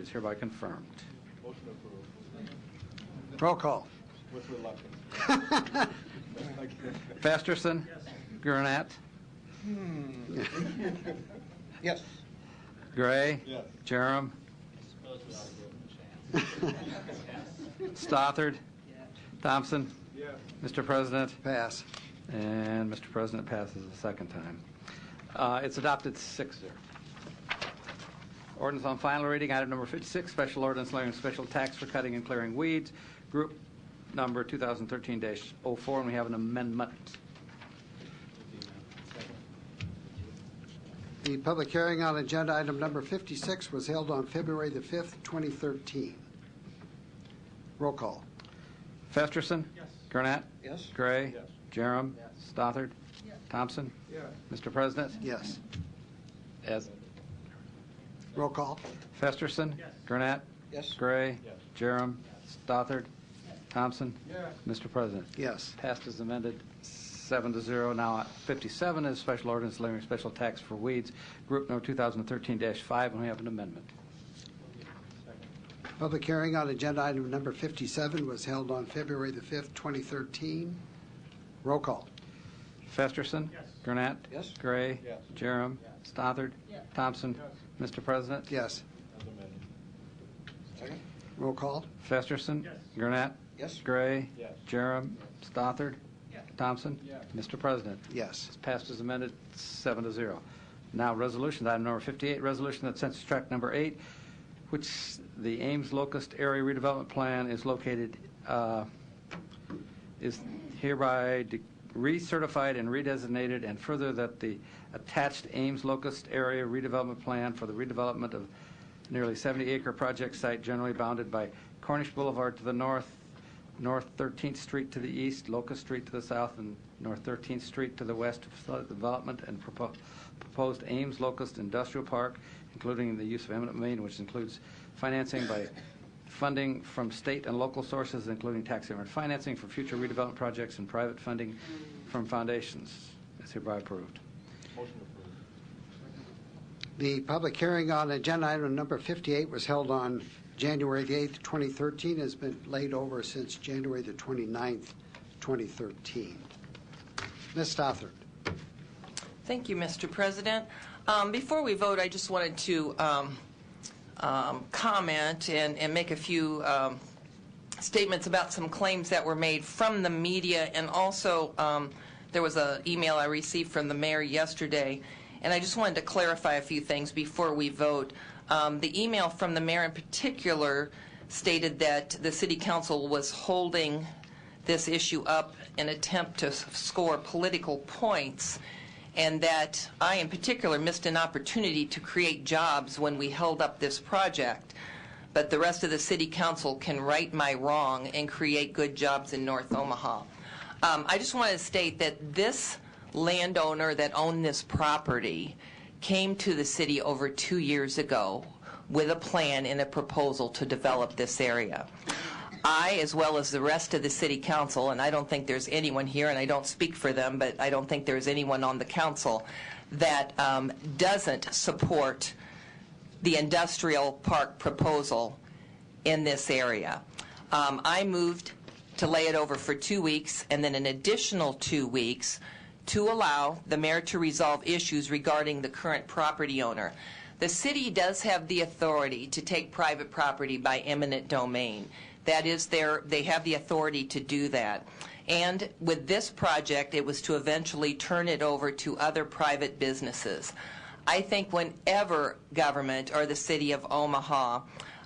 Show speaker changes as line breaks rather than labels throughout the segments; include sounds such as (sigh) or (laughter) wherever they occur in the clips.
is hereby confirmed.
Motion approved,
Roll call.
with reluctance.
Festerson. Gurnett.
(laughs)
Hmm.
Yes.
Gray.
Yes.
Jerem. Stothard. Thompson.
(laughs) Yes.
Mr. President.
(laughs) Pass.
And Mr. President passes a second time. Uh, It's adopted 6-0. Ordinance on final reading, item number 56, special ordinance levying special tax for cutting and clearing weeds, group number 2013-04, and we have an amendment.
The public hearing on agenda item number 56 was held on February the 5th, 2013. Roll call.
Festerson. Yes. Gurnett.
Yes.
Gray.
Yes.
Jerem. Stothard. Thompson.
Yes.
Mr. President.
Yes.
As
Roll call.
Festerson. Gurnett.
Yes.
Gray.
Yes.
Jerem. Stothard. Thompson.
Yes.
Mr. President.
Yes.
Passed as amended, seven to zero. Now, 57 is special ordinance levying special tax for weeds, group number 2013-5, and we have an amendment.
Public hearing on agenda item number 57 was held on February the 5th, 2013. Roll call.
Festerson. Yes. Gurnett.
Yes.
Gray.
Yes.
Jerem. Stothard. Thompson. Mr. President.
Yes.
As amended.
Roll call.
Festerson. Gurnett.
Yes.
Gray.
Yes.
Jerem. Stothard. Thompson.
Yes.
Mr. President.
Yes.
It's passed as amended, seven to zero. Now, resolutions, item number 58, resolution that census tract number eight, which the Ames Locust Area Redevelopment Plan is located, uh, is hereby de- recertified and redesignated, and further that the attached Ames Locust Area Redevelopment Plan for the redevelopment of nearly 70-acre project site generally bounded by Cornish Boulevard to the north, North 13th Street to the east, Locust Street to the south, and North 13th Street to the west to facilitate the development and propo- proposed Ames Locust Industrial Park, including the use of eminent domain, which includes financing by funding from state and local sources, including tax increment financing for future redevelopment projects and private funding from foundations. Is hereby approved.
Motion approved.
The public hearing on agenda item number 58 was held on January the 8th, 2013, has been laid over since January the 29th, 2013. Ms. Stothard.
Thank you, Mr. President. Um, Before we vote, I just wanted to um, um, comment and and make a few um, statements about some claims that were made from the media, and also, um, there was an email I received from the mayor yesterday, and I just wanted to clarify a few things before we vote. Um, The email from the mayor in particular stated that the city council was holding this issue up in attempt to s- score political points, and that I in particular missed an opportunity to create jobs when we held up this project but the rest of the city council can right my wrong and create good jobs in North Omaha. Um, I just want to state that this landowner that owned this property came to the city over two years ago with a plan and a proposal to develop this area. I, as well as the rest of the city council, and I don't think there's anyone here, and I don't speak for them, but I don't think there's anyone on the council that um, doesn't support the industrial park proposal in this area. Um, I moved to lay it over for two weeks and then an additional two weeks to allow the mayor to resolve issues regarding the current property owner. The city does have the authority to take private property by eminent domain. That is their, they have the authority to do that. And with this project, it was to eventually turn it over to other private businesses. I think whenever government or the city of Omaha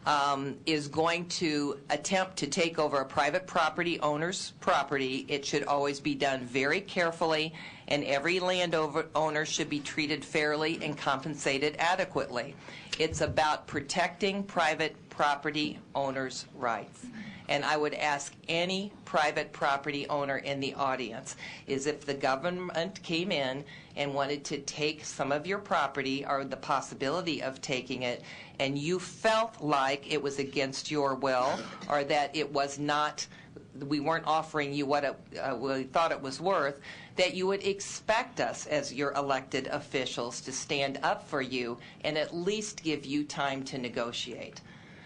um, is going to attempt to take over a private property owner's property, it should always be done very carefully, and every landowner owner should be treated fairly and compensated adequately. It's about protecting private property owners' rights. And I would ask any private property owner in the audience is if the government came in and wanted to take some of your property or the possibility of taking it, and you felt like it was against your will or that it was not, we weren't offering you what it, uh, we thought it was worth, that you would expect us as your elected officials to stand up for you and at least give you time to negotiate.